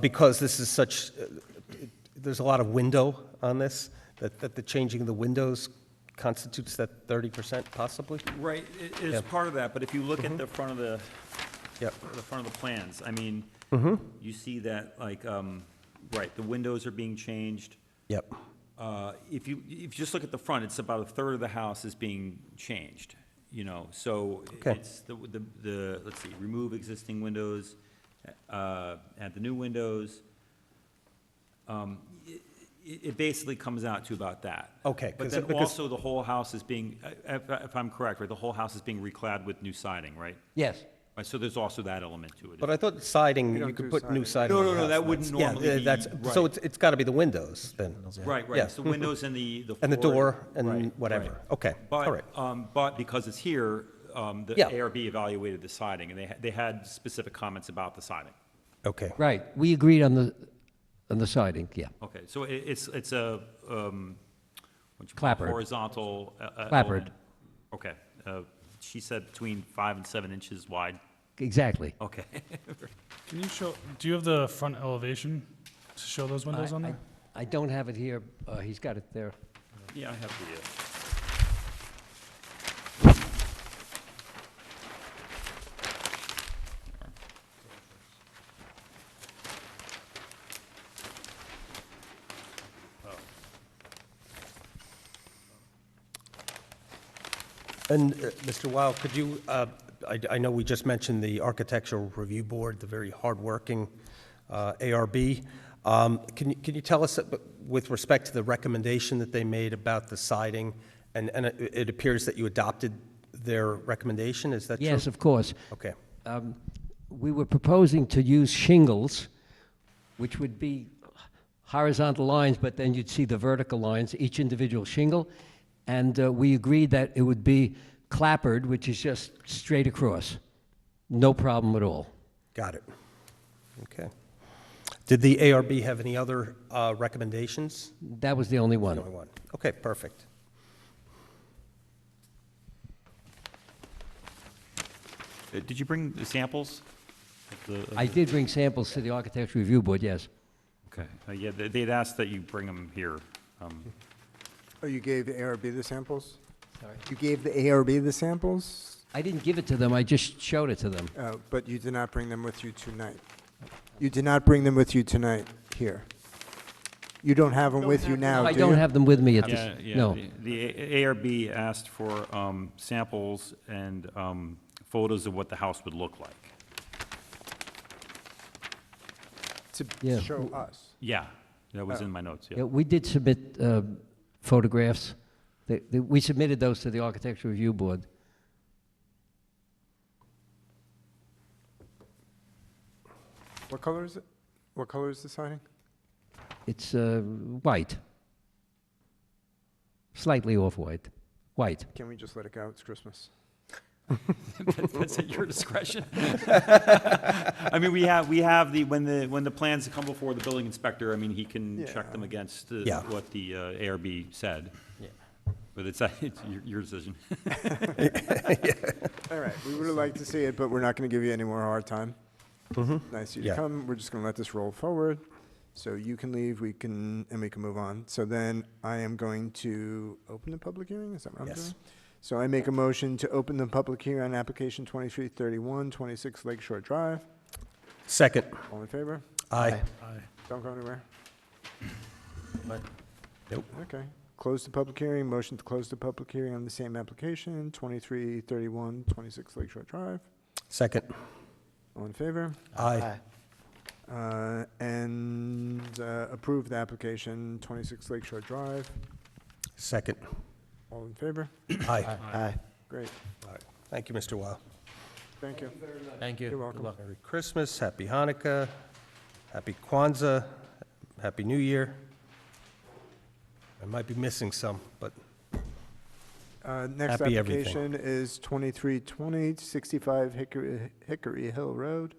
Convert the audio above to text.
because this is such, there's a lot of window on this, that, that the changing of the windows constitutes that 30% possibly? Right, it is Yeah. part of that, but if you look at the front of the, Yep. the front of the plans, I mean, you see that, like, um, right, the windows are being changed. Yep. Uh, If you, if you just look at the front, it's about a third of the house is being changed, you know, so Okay. it's the, the, the, let's see, remove existing windows, uh, add the new windows. Um, i- i- It basically comes out to about that. Okay, But 'cause- then because- also the whole house is being, if, if I'm correct, right, the whole house is being reclad with new siding, right? Yes. Right, So there's also that element to it. But I thought siding, We you don't could do put new siding. No, on no, the no, house. that wouldn't That's- yeah, normally that's- be- So right. it's, it's got to be the windows then. Right, Yeah. right, so windows and the, the And the floor- door and right, whatever. right. Okay, all right. But, um, but because it's here, um, the Yeah. ARB evaluated the siding, and they, ha- they had specific comments about the siding. Okay, Right, we agreed on the, on the siding, yeah. Okay, so it, it's, it's a, um, what you call it, Clapboard. horizontal. uh, uh, Clapboard. element. Okay, uh, she said between five and seven inches wide, Exactly. okay. Can you show, do you have the front elevation to show those windows on I- I- there? I don't have it here, uh, he's got it there. Yeah, I have the, uh, and uh, Mr. Wild, could you, uh, I, I know we just mentioned the Architectural Review Board, the very hardworking uh, ARB. Um, Can you, can you tell us, uh, with respect to the recommendation that they made about the siding, and, and it it appears that you adopted their recommendation, is that true? Yes, of course. Okay, Um, We were proposing to use shingles, which would be horizontal lines, but then you'd see the vertical lines, each individual shingle, and uh, we agreed that it would be clappered, which is just straight across. No problem at all. got it. Okay. Did the ARB have any other uh, recommendations? That was the only one. Only one. Okay, perfect. uh, did you bring the samples? of the- uh, of I the- did bring samples to the Architecture Review Board, yes. Okay, Uh, yeah, they- they'd asked that you bring them here. um, Oh, you gave the ARB the samples? Sorry. You gave the ARB the samples, I didn't give it to them, I just showed it to them. uh, but you did not bring them with you tonight. You did not bring them with you tonight here. You don't have them with you now, Oh, do I you? don't have them with me at Yeah, this, yeah. no. the- The A- ARB asked for um, samples and um, photos of what the house would look like. Yeah. To show us. Yeah, that was in my notes, Yeah, yeah. we did submit uh, photographs. They- they- We submitted those to the Architecture Review Board. What color is it? What color is the siding? It's uh, white, slightly off-white, white. Can we just let it go? It's Christmas. That's at your discretion. I mean, we have, we have the, when the, when the plans come before the building inspector, I mean, he can check them against uh, Yeah. what the uh, ARB said. But it's, it's your- your decision. All right, we would have liked to see it, but we're not going to give you any more hard time. Nice of you Mm-hmm. Yeah. to come. We're just going to let this roll forward. So you can leave, we can, and we can move on. So then I am going to open the public hearing, is that what I'm Yes. doing? So I make a motion to open the public hearing on application 2331, 26 Lakeshore Drive. Second. All in favor? Aye. Don't go anywhere. Nope. Okay. Close the public hearing, motion to close the public hearing on the same application, 2331, 26 Lakeshore Drive. Second. All in favor? Aye. Uh, and uh, approve the application, 26 Lakeshore Drive. Second. All in favor? Aye. Great, Thank you, Mr. Weil. thank you. Thank you. You're welcome. Merry Christmas, Happy Hanukkah, Happy Kwanzaa, Happy New Year. I might be missing some, but Uh, Next Happy everything. application is 2320, 65 Hickory Hickory Hill Road.